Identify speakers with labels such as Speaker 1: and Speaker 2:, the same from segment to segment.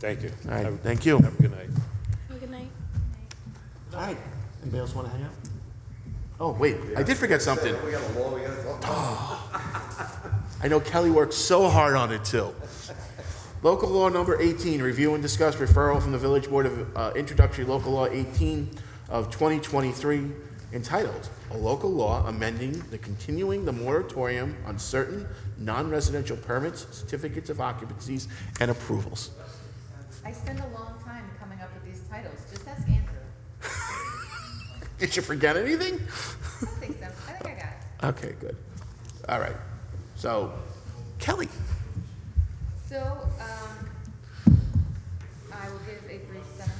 Speaker 1: Thank you.
Speaker 2: All right,
Speaker 1: Have-
Speaker 2: thank you.
Speaker 1: Have a good night.
Speaker 3: Have a good night.
Speaker 2: All right, anybody else want to hang out? Oh, wait, I did forget something.
Speaker 4: We got a law, we got a law.
Speaker 2: I know Kelly worked so hard on it too. Local law number 18, review and discuss referral from the Village Board of uh, Introductory Local Law 18 of 2023 entitled, "A Local Law Amending the Continuing the Moratorium on Certain Non-Residential Permits, Certificates of Occupancies, and Approvals."
Speaker 5: I spend a long time coming up with these titles, just ask Andrew.
Speaker 2: Did you forget anything?
Speaker 5: I don't think so, I think I got it.
Speaker 2: Okay, good. All right. So, Kelly,
Speaker 5: So, um, I will give a brief summary.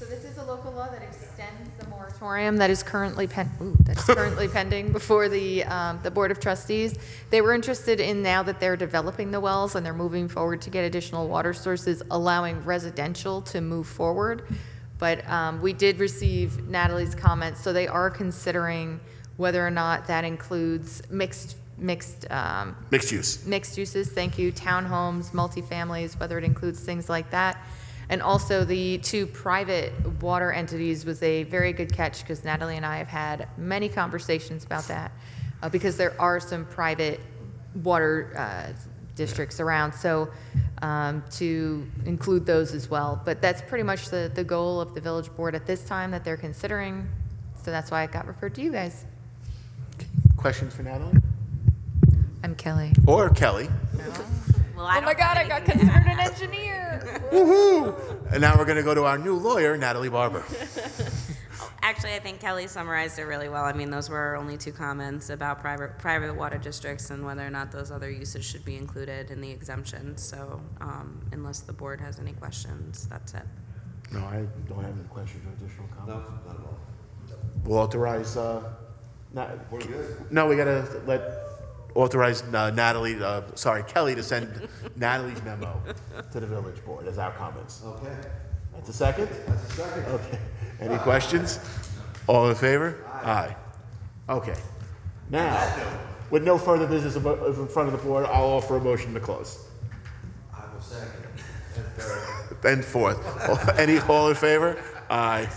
Speaker 5: So this is a local law that extends the moratorium that is currently pen, ooh, that's currently pending before the, um, the Board of Trustees. They were interested in now that they're developing the wells and they're moving forward to get additional water sources, allowing residential to move forward. But, um, we did receive Natalie's comments, so they are considering whether or not that includes mixed, mixed, um,
Speaker 2: mixed use.
Speaker 5: mixed uses, thank you, townhomes, multifamilies, whether it includes things like that. And also the two private water entities was a very good catch because Natalie and I have had many conversations about that uh, because there are some private water uh, districts around. So um, to include those as well. But that's pretty much the, the goal of the village board at this time that they're considering. So that's why it got referred to you guys.
Speaker 2: Questions for Natalie?
Speaker 5: I'm Kelly.
Speaker 2: Or Kelly?
Speaker 3: oh my God, I got considered an engineer.
Speaker 2: Woohoo! And now we're going to go to our new lawyer, Natalie Barber.
Speaker 6: Actually, I think Kelly summarized it really well. I mean, those were our only two comments about private, private water districts and whether or not those other uses should be included in the exemption. So, um, unless the board has any questions, that's it.
Speaker 2: No, I don't have any questions or additional
Speaker 4: No,
Speaker 2: comments.
Speaker 4: not at all.
Speaker 2: We'll authorize, uh, Na-
Speaker 4: We're good.
Speaker 2: no, we got to let, authorize uh, Natalie, uh, sorry, Kelly to send Natalie's memo to the village board as our comments.
Speaker 4: Okay,
Speaker 2: That's a second?
Speaker 4: that's a second.
Speaker 2: Okay. Any questions? All in favor? Aye. Okay. Now, with no further business abo- of- in front of the board, I'll offer a motion to close.
Speaker 4: I will second. And third.
Speaker 2: And fourth. Any, all in favor? Aye.